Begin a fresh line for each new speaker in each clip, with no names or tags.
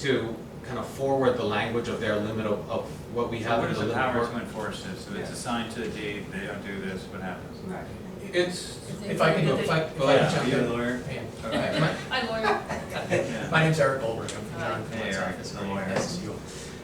to kind of forward the language of their limit of, of what we
So
have
what
in
is
the
the
limit of
power to
work.
enforce this? If it's
Yeah.
assigned to the deed, they don't do this, what happens?
Right.
It's,
If
If I can, if I, if I can
Yeah,
jump
you a
in.
lawyer?
Yeah. My-
I lawyer.
Yeah.
My name's Eric Goldberg, I'm from John
Hey,
Flint's
Eric,
office,
the lawyer.
nice to you.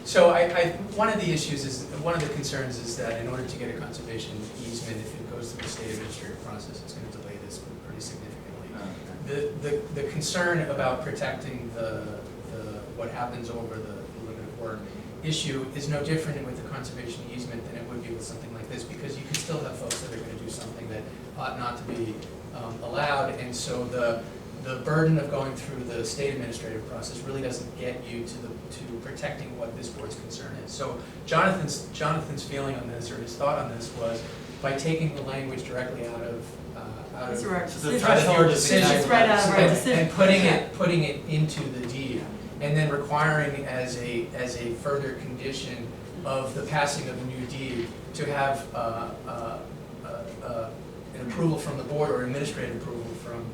So I, I, one of the issues is, one of the concerns is that in order to get a conservation easement, if it goes through the state administrative process, it's gonna delay this pretty significantly.
Okay.
The, the, the concern about protecting the, the, what happens over the the limit of work issue is no different with the conservation easement than it would be with something like this, because you can still have folks that are gonna do something that ought not to be, um, allowed, and so the, the burden of going through the state administrative process really doesn't get you to the, to protecting what this board's concern is. So Jonathan's, Jonathan's feeling on this, or his thought on this was, by taking the language directly out of, uh, out of
It's a right.
So the threshold is
Decision.
It's right out of our
and-
decision.
And putting it, putting it into the deed, and then requiring as a, as a further condition of the passing of a new deed to have, uh, uh, uh, uh, an approval from the board or administrative approval from,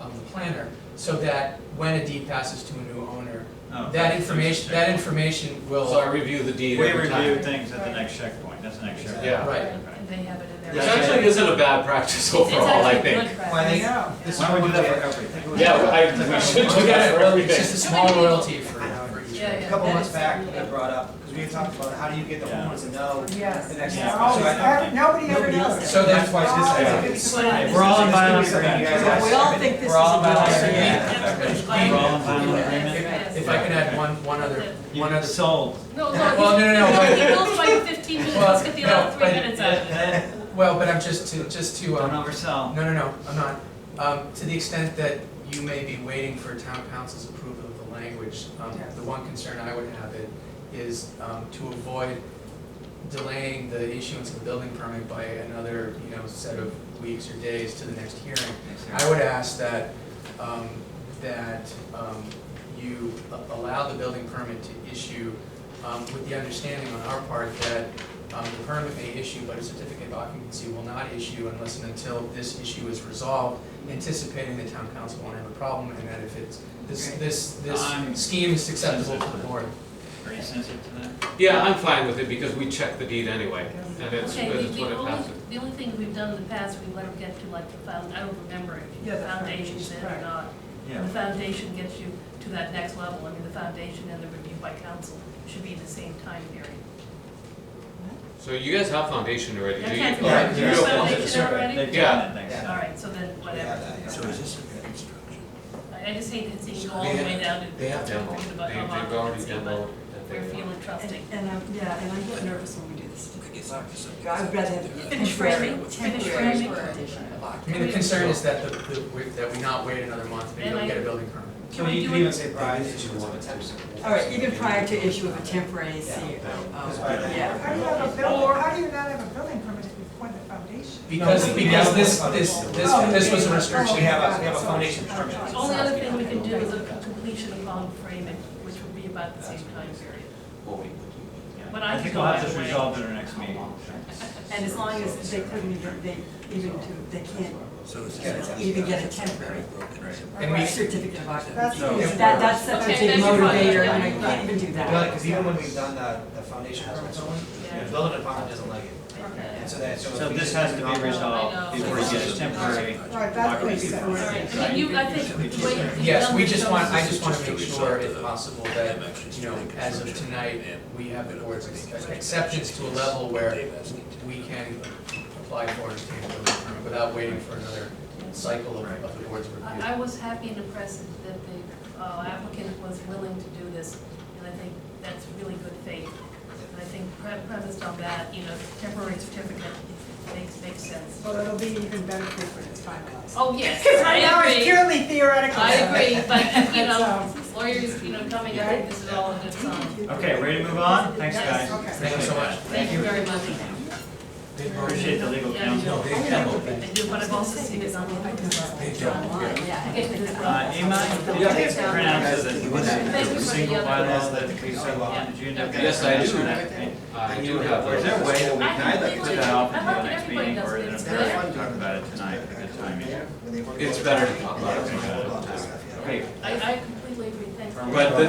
um, the planner, so that when a deed passes to a new owner,
Oh,
that
first
information, that
checkpoint.
information
so I
will,
review the
We
deed every time.
review things at the next checkpoint, that's the next checkpoint.
Yeah.
Right.
And they have it in their.
Which
Yeah.
actually isn't a bad practice
It's
overall, I
actually
think.
good practice.
Why they go?
This Why don't we do that for everything?
Yeah, I, we should do that for
it's
everything.
just a small royalty for, for each.
Yeah,
A
yeah.
couple
that
months
is
back,
something,
they brought up, because we had talked about how do you get the
Yeah.
homeowners to know
Yes.
the next
Yeah.
step.
Always,
So I-
every- nobody ever
Nobody
knows.
else.
So that's why it's
Always
this-
a good
Yeah.
sign.
We're all in
It's gonna be
violence
something
of
you
that.
guys
We all
have
think
to-
this
we're
is
all
a
about
good
it.
idea.
Yeah.
We're all in final
Yeah.
agreement?
Yes.
If I can add one, one other,
You
one other
sold.
No, no.
Well, no, no, no, but-
He builds like fifteen minutes,
Well,
let's get the other
no,
three
but-
minutes out of it.
Well, but I'm just to, just to,
Don't
um,
oversell.
no, no, no, I'm not. Um, to the extent that you may be waiting for town council's approval of the language, um,
Yes.
the one concern I would have it is, um, to avoid delaying the issuance of the building permit by another, you know, set of weeks or days to the next hearing. I would ask that, um, that, um, you a- allow the building permit to issue, um, with the understanding on our part that, um, the permit may issue, but a certificate of occupancy will not issue unless and until this issue is resolved, anticipating the town council won't have a problem, and that if it's, this, this,
I'm
this scheme is acceptable to the board.
Are you sensitive to that?
Yeah, I'm fine with it because we check the deed anyway, and it's,
Okay, the,
it's what
the
it
only,
passes.
the only thing we've done in the past, we let them get to like the found, I don't remember if
Yeah,
the
the
foundation's in or
foundation,
not.
Yeah.
The foundation gets you to that next level, I mean, the foundation and the review by council should be the same time period.
So you guys have foundation already,
Yeah,
do you?
can't-
Alright,
yeah,
you
yeah.
don't-
Foundation already?
They've
Yeah.
done it next
Yeah.
All
time.
right, so then
We have
whatever.
that, yeah.
So is this a construction?
I I just hate to see you go all the way down to.
They have demo,
forget about
they,
how long
they've
it
already
is, but
demoed.
We're feeling trusting.
And, um, yeah, and I get nervous when we do this.
I guess I guess I-
I'd rather have a
Finish
temporary,
framing. Finish
temporary
framing.
condition of
I mean,
occupancy.
the concern is that the, the- we- that we not wait another month, maybe
And
don't
I-
get a building permit.
So
Can we
you
do
can
it?
even say prior to issuance of a temp.
All right, even prior to issue of a temporary CO.
That's
um,
why they-
Yeah.
How do you have a bill, or how do you not have a building permit if you point the foundation?
Because,
No, we-
because
we-
this, this, this, this was a restriction.
We have a, we have a foundation permit.
The Only other thing we can do is a completion upon framing, which would be about the same time period.
Well, we-
Yeah.
But
I
I
think
can
we'll have
go
this
either way.
resolved at our next meeting.
And as long as they couldn't even, they, even to, they can't
So is
Yeah,
this
it's-
even get a temporary
And we-
certificate of occupancy.
That's-
No.
That, that's such a
Okay,
big
that's your problem.
motivator,
Yeah.
and I can't even do
Well,
that.
because even when we've done the, the foundation permits, the
Yeah.
building department doesn't like it.
Okay.
And so that, so. if
So
we
this
just
has
do
to
normal-
be resolved
I know.
before you get a temporary.
Right, that's what he said.
All right, I mean, you, I think the way. you've
Yes,
done
we
this
just
shows
want,
us-
I just want to make sure if possible that, you know, as of tonight, we have the board's acceptance to a level where we can apply for and obtain a building permit without waiting for another cycle of, of the board's review.
I, I was happy and impressed that the uh, applicant was willing to do this, and I think that's really good faith. And I think pre- premised on that, you know, temporary certificate makes, makes sense.
Well, it'll be even better proof when it's finalized.
Oh, yes,
Because
I
right now it's
agree,
purely theoretical. um,
I agree, but, you know,
So-
lawyers, you know, coming, I think this is all a good sign.
Okay, ready to move on? Thanks,
Yes,
guys.
okay.
Thank you so much.
Thank you very much.
Appreciate the legal
Yeah, you
counsel.
know,
I agree.
I do, but I've also seen this on the.
Online, yeah.
I get this from-
Uh, Imai, did you
Yeah.
take pronounce
Thank you
the
for the
single
other-
bylaws that we so long, did you end up? getting
Yes, I do.
pronounced that?
I do have
Or
those.
is there a way that we
I
can either
think
put
we-
that off
I
until the
think
next
everybody
meeting
does
or is it
things
appropriate to talk about it tonight at the timing?
It's better to talk about it.
Okay.
I, I completely agree, thank you.
But the,